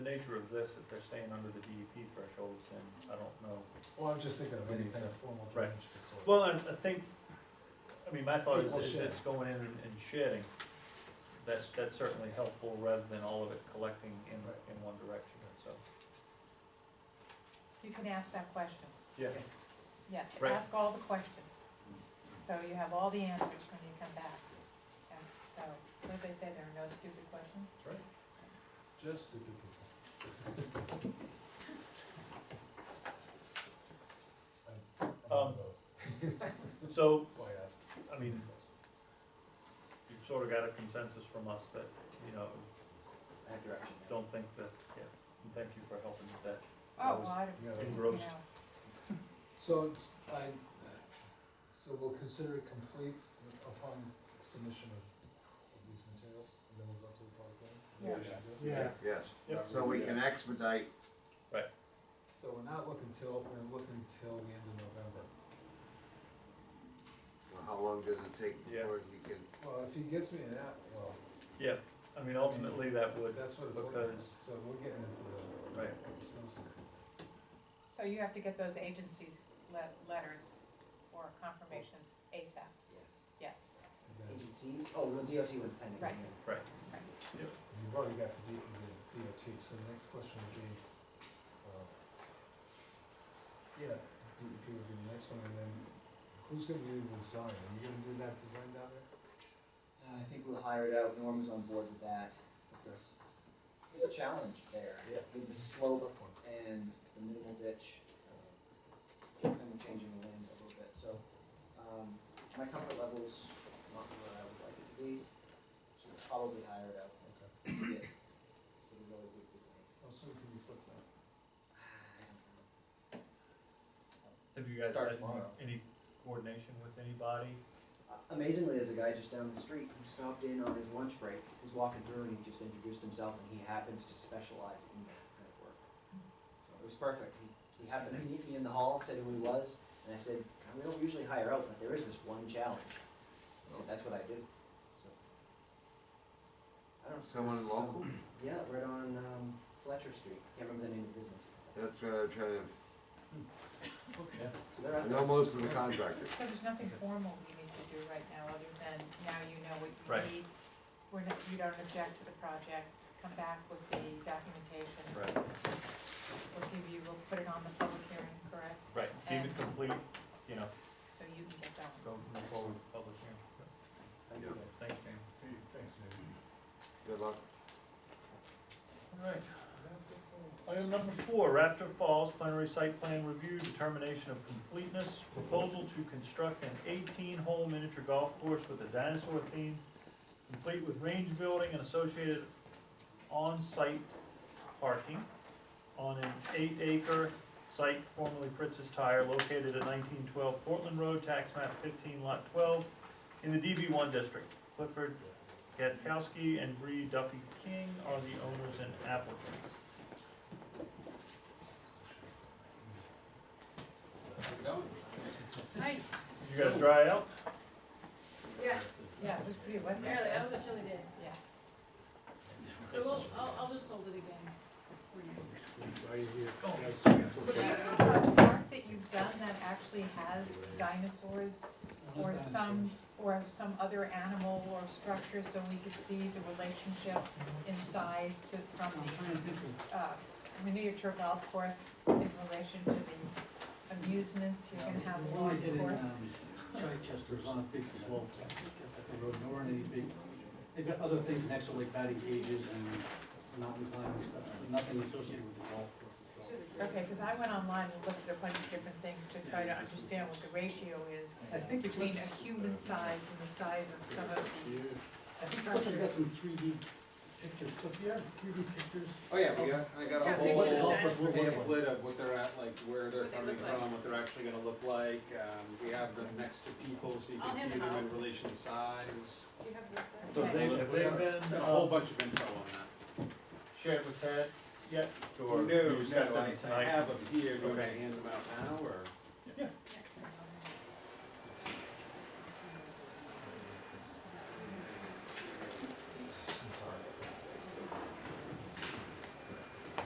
The nature of this, if they're staying under the DEP thresholds, then I don't know. Well, I'm just thinking of any kind of formal Right. drainage facility. Well, I, I think, I mean, my thought is, Well, is shed. it's going in and and shedding. That's, that's certainly helpful rather than all of it collecting in, in one direction, so, You can ask that question, yeah. yes, Right. ask all the questions. So you have all the answers when you come back. Yeah, So, what did they say, there are no stupid questions? Right. Just stupid people. I'm- I'm one Um, of those. So, That's why I asked. I mean, you've sort of got a consensus from us that, you know, That direction. yeah. don't think that, yeah, and thank you for helping with that. I Oh, was well, I don't, You know, you Engrossed. know, So I, so we'll consider it complete upon submission of, of these materials, and then we'll go to the public hearing? Is that what we should do? Yeah. Yes, Yep. so we can expedite, So we're not looking till, we're looking till the end of November. well, how long does it take Yeah. before you can, Well, if he gets me an app, well, Yeah, I mean, ultimately, that would, that's what it's looking at, because, so we're getting into the. right, snow season. so you have to get those agencies le- letters or confirmations ASAP, Yes. yes, And then- Agencies, oh, well, DOT one's pending. Right. yeah. right. right. You've already got the D- the DOT, so the next question would be, uh, yeah, DEP would be the next one, and then who's gonna do the design? Are you gonna do that design down there? Uh, I think we'll hire it out, Norm is on board with that, but it's, it's a challenge there. Yeah. With the slope and the minimal ditch, uh, and we're changing the land a little bit, so, um, my comfort level's not where I would like it to be, should probably hire it out. Okay. to get- to get a really good design. How soon Oh, can you flip that? Ah, I Have you guys Start had tomorrow. any coordination with anybody? Uh, Amazingly, there's a guy just down the street who stopped in on his lunch break. He was walking through and he just introduced himself, and he happens to specialize in that kind of work. So it was perfect. He, he happened to meet me in the hall, said who he was, and I said, "God, "We don't usually hire out, but there is this one challenge." I said, "That's what I do." So I don't know. someone some- local? Yeah, right on um, Fletcher Street. Can't remember the name of the business. That's what I'm trying to, Yeah. So they're out I there. know most of the contractors. So there's nothing formal we need to do right now, other than now you know what Right. you need. We're not, you don't object to the project, come back with the documentation. Right, We'll give you, we'll put it on the public hearing, correct? right, Keep it complete, you know, So you can get done. go move forward with public hearing. Thank you. Yeah. Thanks, Dan. Thanks, Jamie. Good luck. All right. Item number four, Raptor Falls Plenary Site Plan Review, Determination of Completeness, Proposal to construct an eighteen-hole miniature golf course with a dinosaur theme, complete with range building and associated on-site parking on an eight-acre site formerly Fritz's Tire located at nineteen twelve Portland Road, tax map fifteen, lot twelve, in the DB one district. Clifford Gatkowski and Bree Duffy King are the owners and applicants. Hi, You guys dry out? yeah, Yeah, it was pretty wet. apparently, that was a chilly day. Yeah. So we'll, I'll, I'll just hold it again. for you. Do you know a park that you've done that actually has dinosaurs or some, or some other animal or structure, so we could see the relationship in size to, from the, uh, miniature golf course in relation to the amusements you're gonna have Well, along we did the in course? um, Chichester's on a big slope at the road, and there weren't any big, they've got other things next to like batting cages and mountain climbing stuff, but nothing associated with the golf course itself. Okay, cause I went online and looked at a bunch of different things to try to understand what the ratio is I think it's, between I a human size and the size of some of these. think Clifford's got some three D pictures, Cliff, you have three D pictures? Oh, yeah, we got, I got a Yeah, they should whole have done it. pamphlet of what they're at, like, where they're What they coming look like. from, what they're actually gonna look like. Um, we have them next to people, so you I'll can hand see them them out. in relation to size. Do you have this there? So they, have they been A whole uh, bunch of info on that. shared with Ted yet? Or No, you just got no, them I- I tonight? have them here, do you wanna Okay. hand them out now, or? Yeah. Yeah.